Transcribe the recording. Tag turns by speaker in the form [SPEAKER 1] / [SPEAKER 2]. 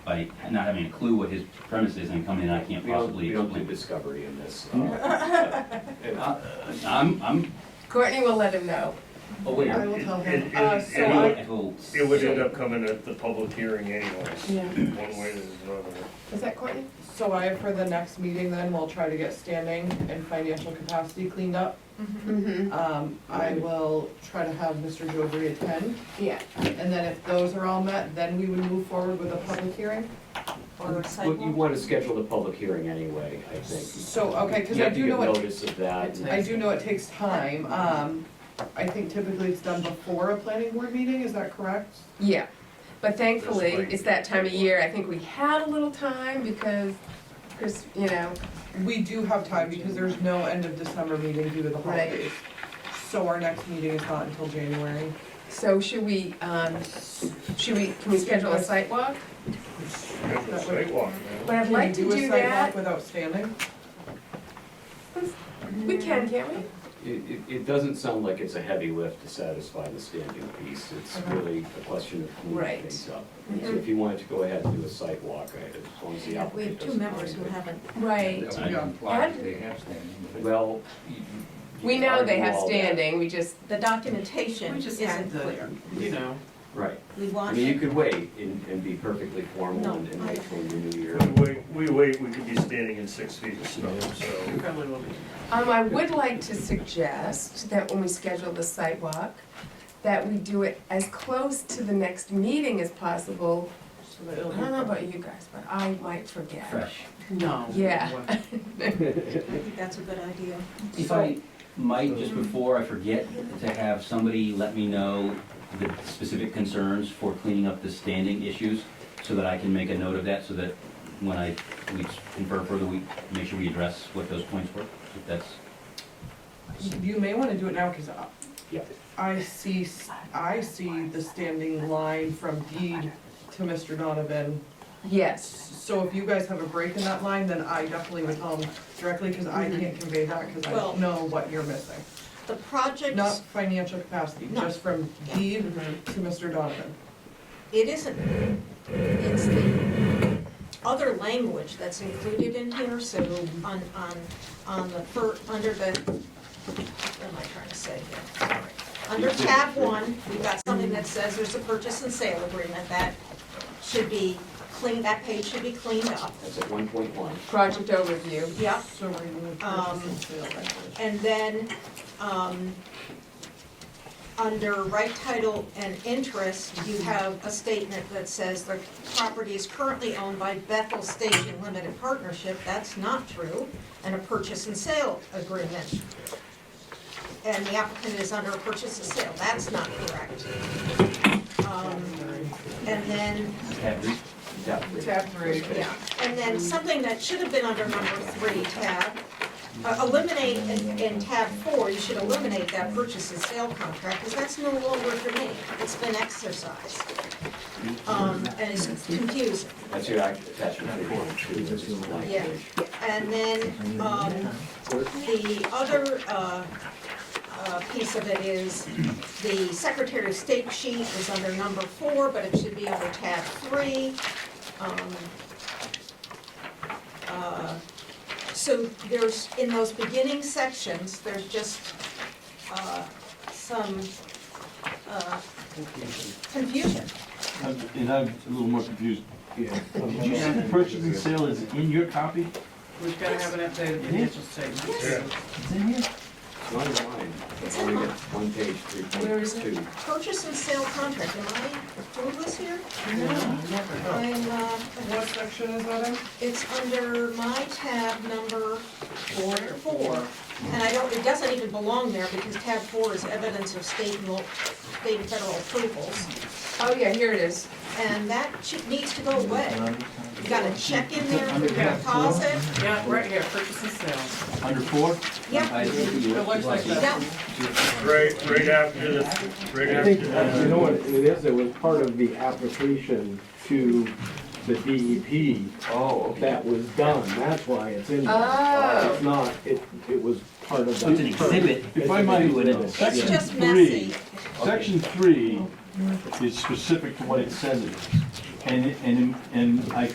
[SPEAKER 1] by not having a clue what his premise is and coming in, I can't
[SPEAKER 2] We don't,
[SPEAKER 1] possibly
[SPEAKER 2] we don't do
[SPEAKER 1] explain.
[SPEAKER 2] discovery in this. uh, and-
[SPEAKER 1] Uh, I'm, I'm
[SPEAKER 3] Courtney will let him know. I
[SPEAKER 1] aware.
[SPEAKER 3] will tell him.
[SPEAKER 4] It- it-
[SPEAKER 5] Uh,
[SPEAKER 4] it-
[SPEAKER 5] so
[SPEAKER 1] It
[SPEAKER 4] it
[SPEAKER 1] will-
[SPEAKER 4] would-
[SPEAKER 1] it will-
[SPEAKER 4] It would end up coming at the public hearing anyways,
[SPEAKER 5] Yeah.
[SPEAKER 4] one way or another.
[SPEAKER 3] Is that Courtney?
[SPEAKER 5] So I, for the next meeting then, we'll try to get standing and financial capacity cleaned up.
[SPEAKER 3] Mm-hmm.
[SPEAKER 5] Um, I will try to have Mr. Jovry attend,
[SPEAKER 3] Yeah.
[SPEAKER 5] and then if those are all met, then we would move forward with a public hearing? Or a
[SPEAKER 2] Well, You want to schedule the public hearing anyway, I think.
[SPEAKER 5] So, okay, cause I do
[SPEAKER 2] You
[SPEAKER 5] know
[SPEAKER 2] have
[SPEAKER 5] it,
[SPEAKER 2] to give notice of that. and-
[SPEAKER 5] I do know it takes time, um, I think typically it's done before a planning board meeting, is that correct?
[SPEAKER 3] Yeah, but thankfully,
[SPEAKER 4] Just like-
[SPEAKER 3] it's that time of year, I think we had a little time because, Chris, you know,
[SPEAKER 5] We do have time because there's no end of December meeting due to the
[SPEAKER 3] Right.
[SPEAKER 5] holidays. So our next meeting is not until January.
[SPEAKER 3] so should we, um, should we, can we schedule a site walk?
[SPEAKER 4] Have the sidewalk,
[SPEAKER 3] What I'd like to do
[SPEAKER 5] Can we do a sidewalk
[SPEAKER 3] that,
[SPEAKER 5] without standing?
[SPEAKER 3] we can, can't we?
[SPEAKER 2] It, it, it doesn't sound like it's a heavy lift to satisfy the standing piece. It's
[SPEAKER 5] Okay.
[SPEAKER 2] really a question of moving
[SPEAKER 3] Right.
[SPEAKER 2] things up.
[SPEAKER 3] Yeah.
[SPEAKER 2] So if you wanted to go ahead and do a site walk, I- as long as the
[SPEAKER 6] We have
[SPEAKER 2] applicant
[SPEAKER 6] two
[SPEAKER 2] doesn't
[SPEAKER 6] members who
[SPEAKER 2] mind it.
[SPEAKER 6] haven't.
[SPEAKER 3] Right.
[SPEAKER 1] I-
[SPEAKER 7] They have standing.
[SPEAKER 2] Well.
[SPEAKER 3] We know they have
[SPEAKER 2] standing.
[SPEAKER 3] standing, we just,
[SPEAKER 6] The documentation
[SPEAKER 8] We just had
[SPEAKER 6] isn't
[SPEAKER 8] the,
[SPEAKER 6] clear.
[SPEAKER 8] you know,
[SPEAKER 2] Right.
[SPEAKER 6] We
[SPEAKER 2] I
[SPEAKER 6] want
[SPEAKER 2] mean, you
[SPEAKER 6] it.
[SPEAKER 2] could wait and, and be perfectly formal
[SPEAKER 6] No,
[SPEAKER 2] and and
[SPEAKER 6] I-
[SPEAKER 2] wait till the new year.
[SPEAKER 4] If We wait, we wait, we could be standing in six feet of snow, so.
[SPEAKER 8] we probably will be.
[SPEAKER 3] um, I would like to suggest that when we schedule the site walk, that we do it as close to the next meeting as possible. I don't know about you guys, but I might forget.
[SPEAKER 1] Fresh.
[SPEAKER 8] No.
[SPEAKER 3] Yeah.
[SPEAKER 6] I think that's a good idea.
[SPEAKER 1] If I might, just before I forget, to have somebody let me know the specific concerns for cleaning up the standing issues, so that I can make a note of that, so that when I, we confer further, we make sure we address what those points were, if that's,
[SPEAKER 5] You may wanna do it now, cause I-
[SPEAKER 2] Yeah.
[SPEAKER 5] I see, s- I see the standing line from deed to Mr. Donovan.
[SPEAKER 3] Yes,
[SPEAKER 5] So if you guys have a break in that line, then I definitely would tell him directly, cause
[SPEAKER 8] Mm-hmm.
[SPEAKER 5] I can't convey that, cause I
[SPEAKER 6] Well-
[SPEAKER 5] don't know what you're missing.
[SPEAKER 6] The
[SPEAKER 5] Not
[SPEAKER 6] project,
[SPEAKER 5] financial capacity,
[SPEAKER 6] No.
[SPEAKER 5] just from deed
[SPEAKER 8] Mm-hmm.
[SPEAKER 5] to Mr. Donovan.
[SPEAKER 6] it isn't, it's the other language that's included in here, so on, on, on the fir, under the, what am I trying to say here? Sorry. Under tab one, we've got something that says there's a purchase and sale agreement that should be cleaned, that page should be cleaned up.
[SPEAKER 2] That's at one point one.
[SPEAKER 3] project overview.
[SPEAKER 6] Yep,
[SPEAKER 5] So remove
[SPEAKER 6] Um,
[SPEAKER 5] purchase and sale language.
[SPEAKER 6] And then, um, under right title and interest, you have a statement that says the property is currently owned by Bethel Station Limited Partnership. That's not true, and a purchase and sale agreement. And the applicant is under a purchase and sale. That's not correct. Um, And then,
[SPEAKER 1] tab three.
[SPEAKER 2] Tab three.
[SPEAKER 5] Tab three.
[SPEAKER 6] yeah, and then something that should have been under number three tab, uh, eliminate in- in tab four, you should eliminate that purchase and sale contract, because that's no longer for me, it's been exercised. Um, and it's confusing.
[SPEAKER 2] That's your act- attachment three point two, which is the
[SPEAKER 6] Yeah.
[SPEAKER 2] language.
[SPEAKER 6] And then, um, the other, uh, uh, piece of it is the Secretary of State sheet is under number four, but it should be under tab three. Um, uh, So there's, in those beginning sections, there's just, uh, some, uh, confusion.
[SPEAKER 9] And I'm a little more confused. Did you say the purchase and sale is in your copy?
[SPEAKER 8] We've got to have an updated financial statement.
[SPEAKER 4] Yeah.
[SPEAKER 9] It's in here?
[SPEAKER 2] It's not in mine.
[SPEAKER 6] It's
[SPEAKER 2] Only
[SPEAKER 6] in
[SPEAKER 2] got
[SPEAKER 6] mine.
[SPEAKER 2] one page, three
[SPEAKER 3] Where is
[SPEAKER 2] point
[SPEAKER 3] it?
[SPEAKER 2] two.
[SPEAKER 6] Purchase and sale contract, am I doing this here?
[SPEAKER 8] No, never.
[SPEAKER 6] I'm, uh,
[SPEAKER 5] What section is that in?
[SPEAKER 6] It's under my tab number four, four, and I don't, it doesn't even belong there because tab four is evidence of state and, lo- state and federal approvals.
[SPEAKER 3] Oh, yeah, here it is.
[SPEAKER 6] And that should- needs to go away. You got a check in there for your deposit.
[SPEAKER 8] Yeah, right here, purchase and sale.
[SPEAKER 9] Under four?
[SPEAKER 6] Yeah,
[SPEAKER 5] It looks like that.
[SPEAKER 6] yeah,
[SPEAKER 4] Right, right after the, right
[SPEAKER 10] I
[SPEAKER 4] after
[SPEAKER 10] think, you know
[SPEAKER 4] the,
[SPEAKER 10] what it is, it was part of the application to the DEP
[SPEAKER 2] Oh, okay.
[SPEAKER 10] that was done, that's why it's in there.
[SPEAKER 3] Oh.
[SPEAKER 10] If not, it, it was part of
[SPEAKER 1] So it's an
[SPEAKER 10] the.
[SPEAKER 1] exhibit.
[SPEAKER 10] If I might,
[SPEAKER 1] Do it in a-
[SPEAKER 6] it's
[SPEAKER 10] section
[SPEAKER 6] just messy.
[SPEAKER 10] three, section three is specific to what it says it is. And, and, and I